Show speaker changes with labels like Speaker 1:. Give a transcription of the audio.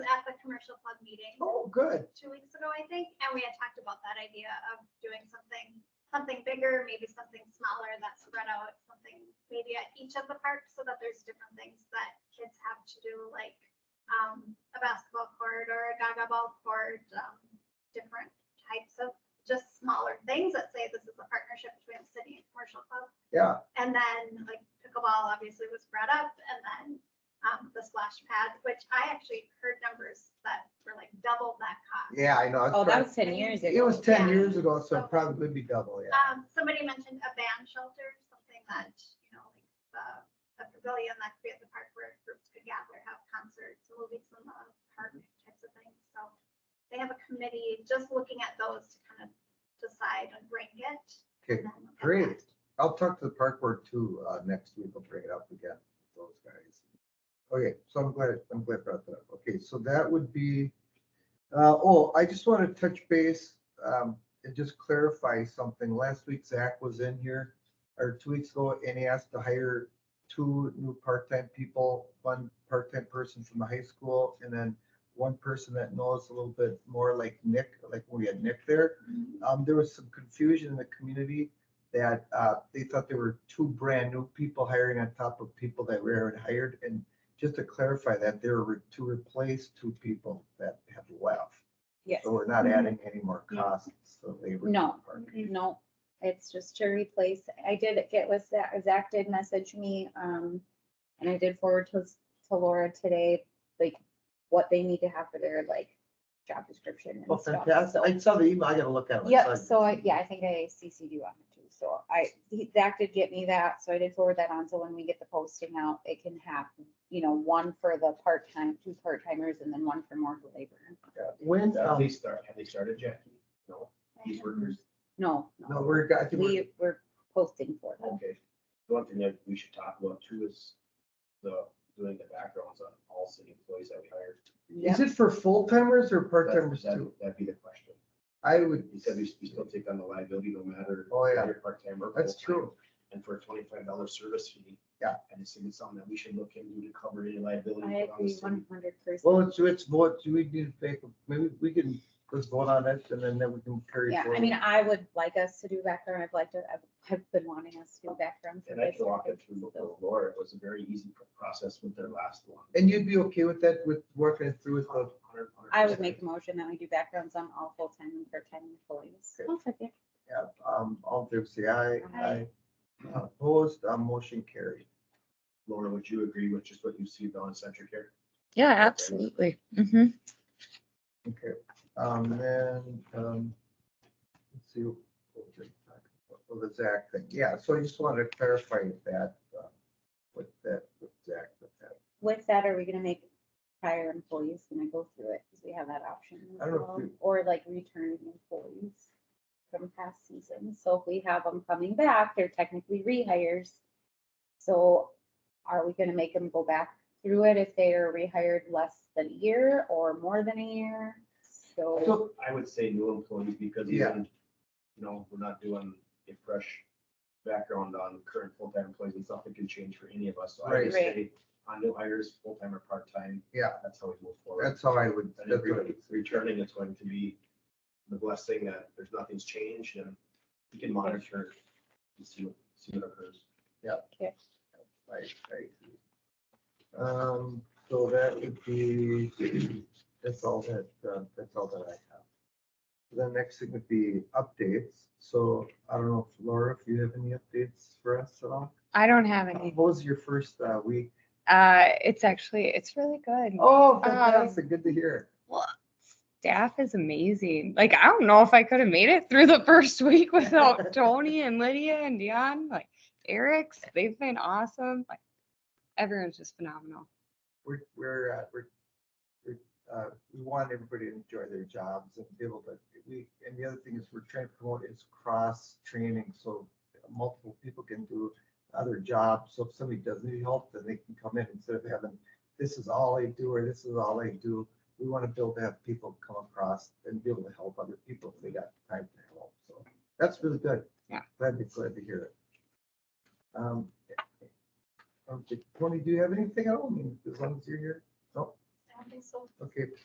Speaker 1: commercial club meeting
Speaker 2: Oh, good.
Speaker 1: two weeks ago, I think, and we had talked about that idea of doing something, something bigger, maybe something smaller that spread out, something maybe at each of the parks so that there's different things that kids have to do, like um, a basketball court or a gaga ball court, um, different types of just smaller things that say this is a partnership between the city and commercial club.
Speaker 2: Yeah,
Speaker 1: And then like pickleball obviously was brought up and then um, the splash pad, which I actually heard numbers that were like double that cost.
Speaker 2: yeah, I know. it's
Speaker 3: Oh, that
Speaker 2: probably-
Speaker 3: was ten years ago.
Speaker 2: It was ten
Speaker 1: yeah.
Speaker 2: years ago, so
Speaker 1: So-
Speaker 2: it probably would be double, yeah.
Speaker 1: Um, somebody mentioned a band shelter, something that, you know, like the, the pavilion that could be at the park where groups could gather, have concerts, a little bit some uh, park types of things. So they have a committee just looking at those to kind of decide and rank it. and
Speaker 2: Okay,
Speaker 1: then look at
Speaker 2: great.
Speaker 1: that.
Speaker 2: I'll talk to the park board too, uh, next week. I'll bring it up again, with those guys. Okay, so I'm glad, I'm glad I brought that up. Okay, so that would be, uh, oh, I just want to touch base, um, and just clarify something. Last week Zach was in here, or two weeks ago, and he asked to hire two new part-time people, one part-time person from the high school, and then one person that knows a little bit more like Nick, like we had Nick there. Um, there was some confusion in the community that uh, they thought there were two brand new people hiring on top of people that were already hired. And just to clarify that, they were to replace two people that have left.
Speaker 3: Yes,
Speaker 2: So we're not adding any more
Speaker 3: No.
Speaker 2: costs. So they were.
Speaker 3: No. no, it's just to replace, I did get with Zach, Zach did message me, um, and I did forward to, to Laura today, like, what they need to have for their, like, job description
Speaker 2: Well,
Speaker 3: and stuff,
Speaker 2: Oh, fantastic.
Speaker 3: so.
Speaker 2: I saw the email. I gotta look at it.
Speaker 3: Yep, so I, yeah, I think I CC'd you on it too, so I, he- Zach did get me that, so I did forward that on, so when we get the posting out, it can have, you know, one for the part-time, two part-timers, and then one for more labor.
Speaker 2: When,
Speaker 4: Have
Speaker 2: um,
Speaker 4: they start, have they started, Jackie? No,
Speaker 1: Mm-hmm.
Speaker 4: these workers,
Speaker 3: No,
Speaker 2: no,
Speaker 3: no,
Speaker 2: we're, I think we're-
Speaker 3: we, we're posting for them.
Speaker 4: okay. The One thing that we should talk about too is the, doing the backgrounds on all city employees that we hired.
Speaker 3: Yep.
Speaker 2: is it for full timers or part timers
Speaker 4: That's- that-
Speaker 2: too?
Speaker 4: That'd be the question.
Speaker 2: I would,
Speaker 4: You said we we still take on the liability no matter.
Speaker 2: Oh, yeah.
Speaker 4: if you're Part-time or.
Speaker 2: that's
Speaker 4: full-time.
Speaker 2: true.
Speaker 4: And for a twenty-five dollar service fee.
Speaker 2: Yeah.
Speaker 4: I just think it's something that we should look into to cover any liability.
Speaker 3: I
Speaker 4: put on the
Speaker 3: agree
Speaker 4: city.
Speaker 3: one hundred
Speaker 2: Well,
Speaker 3: percent.
Speaker 2: it's, it's what, do we need to take, maybe we can just vote on it and then then we can carry.
Speaker 3: Yeah, I
Speaker 2: forward.
Speaker 3: mean, I would like us to do background, I've liked it, I've, I've been wanting us to do background. for
Speaker 4: And I
Speaker 3: this.
Speaker 4: can walk it through with Laura. It was a very easy pr- process with their last one.
Speaker 2: And you'd be okay with that, with working it through with the,
Speaker 4: 100, 100%.
Speaker 3: I would make a motion that we do backgrounds on all full-time and part-time employees.
Speaker 2: Okay.
Speaker 3: I'll second.
Speaker 2: yeah, um, all in favor, say aye.
Speaker 3: Aye.
Speaker 2: Aye. Opposed, uh, motion carried.
Speaker 4: Laura, would you agree with just what you see on Centric here?
Speaker 5: Yeah, absolutely. hmm
Speaker 2: Okay, um, then, um, let's see. what we're talking about. Oh, the Zach thing, yeah, so I just wanted to clarify that, uh, with that, with Zach, with that.
Speaker 3: With that, are we gonna make prior employees gonna go through it? Because we have that option
Speaker 2: I don't
Speaker 3: as
Speaker 2: know if
Speaker 3: well,
Speaker 2: we-
Speaker 3: or like returning employees from past seasons. So if we have them coming back, they're technically rehires. So are we gonna make them go back through it if they are rehired less than a year or more than a year? So,
Speaker 2: So,
Speaker 4: I would say new employees because
Speaker 2: Yeah.
Speaker 4: even, you know, we're not doing a fresh background on current full-time employees and stuff. It can change for any of us. So I
Speaker 2: Right.
Speaker 4: would
Speaker 3: Right.
Speaker 4: say on new hires, full-time or part-time.
Speaker 2: Yeah.
Speaker 4: That's how we move forward.
Speaker 2: that's how I would,
Speaker 4: And
Speaker 2: that's
Speaker 4: if
Speaker 2: what I
Speaker 4: re-
Speaker 2: would say.
Speaker 4: returning, it's going to be the blessing that there's nothing's changed and we can monitor and see what, see what occurs.
Speaker 2: Right, right. Um, so that would be, that's all that, uh, that's all that I have. The next thing would be updates. So I don't know, if Laura, if you have any updates for us at all?
Speaker 5: I don't have
Speaker 2: What
Speaker 5: any.
Speaker 2: was your first uh, week?
Speaker 5: Uh, it's actually, it's really good.
Speaker 2: Oh, fantastic. Good to hear.
Speaker 5: Staff is amazing. Like, I don't know if I could have made it through the first week without Tony and Lydia and Dion, like Eric's, they've been awesome. Like, everyone's just phenomenal.
Speaker 2: We're, we're, uh, we're, we're, uh, we want everybody to enjoy their jobs and be able to, we, and the other thing is we're trying to promote is cross training. So multiple people can do other jobs. So if somebody does need help, then they can come in instead of having, this is all I do, or this is all I do. We want to build to have people come across and be able to help other people if they got time to help. So that's really good.
Speaker 5: Yeah.
Speaker 2: Glad to, glad to hear it. Um, okay, Tony, do you have anything? I don't mean, as long as you're here.
Speaker 1: That'd be so
Speaker 2: Okay,